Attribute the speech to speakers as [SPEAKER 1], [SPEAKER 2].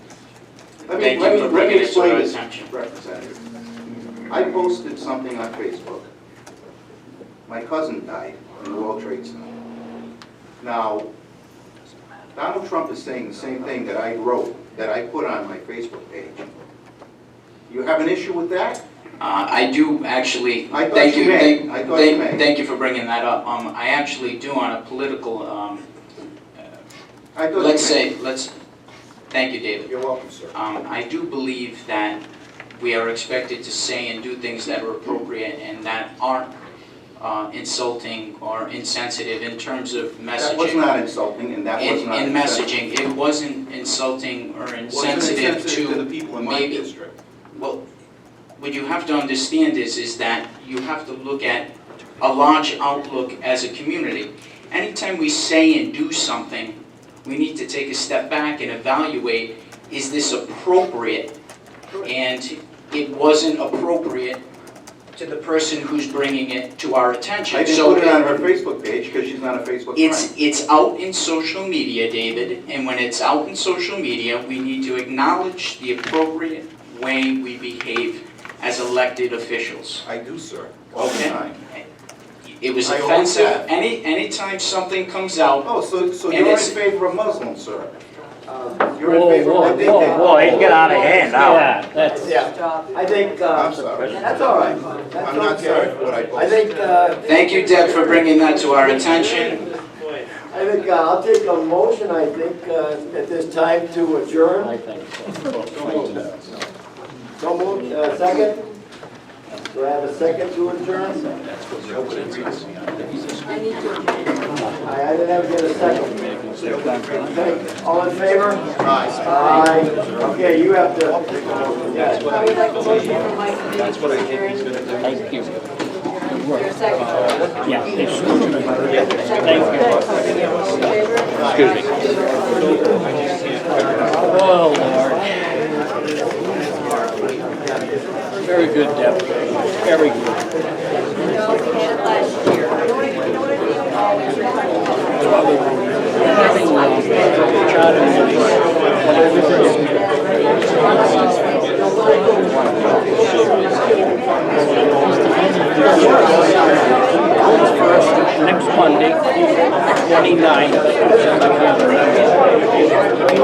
[SPEAKER 1] Let me,
[SPEAKER 2] Thank
[SPEAKER 1] let me,
[SPEAKER 2] you
[SPEAKER 1] let
[SPEAKER 2] for
[SPEAKER 1] me
[SPEAKER 2] bringing it to
[SPEAKER 1] explain
[SPEAKER 2] our
[SPEAKER 1] this,
[SPEAKER 2] attention.
[SPEAKER 1] Representative. I posted something on Facebook. My cousin died in the World Trade Center. Now, Donald Trump is saying the same thing that I wrote, that I put on my Facebook page. You have an issue with that?
[SPEAKER 2] Uh, I do actually,
[SPEAKER 1] I thought
[SPEAKER 2] thank
[SPEAKER 1] you
[SPEAKER 2] you,
[SPEAKER 1] may.
[SPEAKER 2] thank,
[SPEAKER 1] I thought you may.
[SPEAKER 2] thank, thank you for bringing that up. Um, I actually do on a political, um,
[SPEAKER 1] I thought you
[SPEAKER 2] let's
[SPEAKER 1] may.
[SPEAKER 2] say, let's, thank you, David.
[SPEAKER 1] You're welcome, sir.
[SPEAKER 2] Um, I do believe that we are expected to say and do things that are appropriate and that aren't uh, insulting or insensitive in terms of
[SPEAKER 1] That was
[SPEAKER 2] messaging.
[SPEAKER 1] not insulting, and that was
[SPEAKER 2] In,
[SPEAKER 1] not.
[SPEAKER 2] in
[SPEAKER 1] insensitive.
[SPEAKER 2] messaging, it wasn't insulting or
[SPEAKER 1] Wasn't
[SPEAKER 2] insensitive
[SPEAKER 1] insensitive to
[SPEAKER 2] to,
[SPEAKER 1] the people in my
[SPEAKER 2] maybe-
[SPEAKER 1] district.
[SPEAKER 2] well, what you have to understand is, is that you have to look at a large outlook as a community. Anytime we say and do something, we need to take a step back and evaluate, is this appropriate and it wasn't appropriate to the person who's bringing it to our attention.
[SPEAKER 1] I didn't
[SPEAKER 2] So
[SPEAKER 1] put it on her Facebook page because she's not a Facebook friend.
[SPEAKER 2] It's, it's out in social media, David, and when it's out in social media, we need to acknowledge the appropriate way we behave as elected officials.
[SPEAKER 1] I do, sir. All the
[SPEAKER 2] Okay.
[SPEAKER 1] time.
[SPEAKER 2] It was
[SPEAKER 1] I always
[SPEAKER 2] offensive,
[SPEAKER 1] have.
[SPEAKER 2] any, anytime something comes out,
[SPEAKER 1] Oh, so, so
[SPEAKER 2] And
[SPEAKER 1] you're in
[SPEAKER 2] it's-
[SPEAKER 1] favor of Muslims, sir?
[SPEAKER 3] Um,
[SPEAKER 1] You're in
[SPEAKER 4] Whoa,
[SPEAKER 1] favor of
[SPEAKER 4] whoa,
[SPEAKER 1] what they did?
[SPEAKER 4] whoa,
[SPEAKER 5] whoa, he's getting out of hand now.
[SPEAKER 4] Yeah, that's,
[SPEAKER 3] Yeah, I think,
[SPEAKER 1] I'm
[SPEAKER 3] uh,
[SPEAKER 1] sorry.
[SPEAKER 3] that's all right, that's
[SPEAKER 1] I'm not sorry
[SPEAKER 3] okay.
[SPEAKER 1] for what I
[SPEAKER 3] I
[SPEAKER 1] posted.
[SPEAKER 3] think, uh,
[SPEAKER 2] thank you, Deb, for bringing that to our attention.
[SPEAKER 3] I think uh, I'll take a motion, I think, uh, at this time to adjourn.
[SPEAKER 4] I think so.
[SPEAKER 3] So moved, uh, second? Do I have a second to adjourn? I, I didn't have to get a second. Okay, all in favor?
[SPEAKER 1] Right.
[SPEAKER 3] Aye. Okay, you have to, yes.
[SPEAKER 6] I would like a motion from my committee. That's what I think he's gonna do.
[SPEAKER 4] Thank you.
[SPEAKER 6] There's a second.
[SPEAKER 4] Yeah, it's-
[SPEAKER 6] Excuse me.
[SPEAKER 4] Oh, Lord. Very good, Deb. Very good.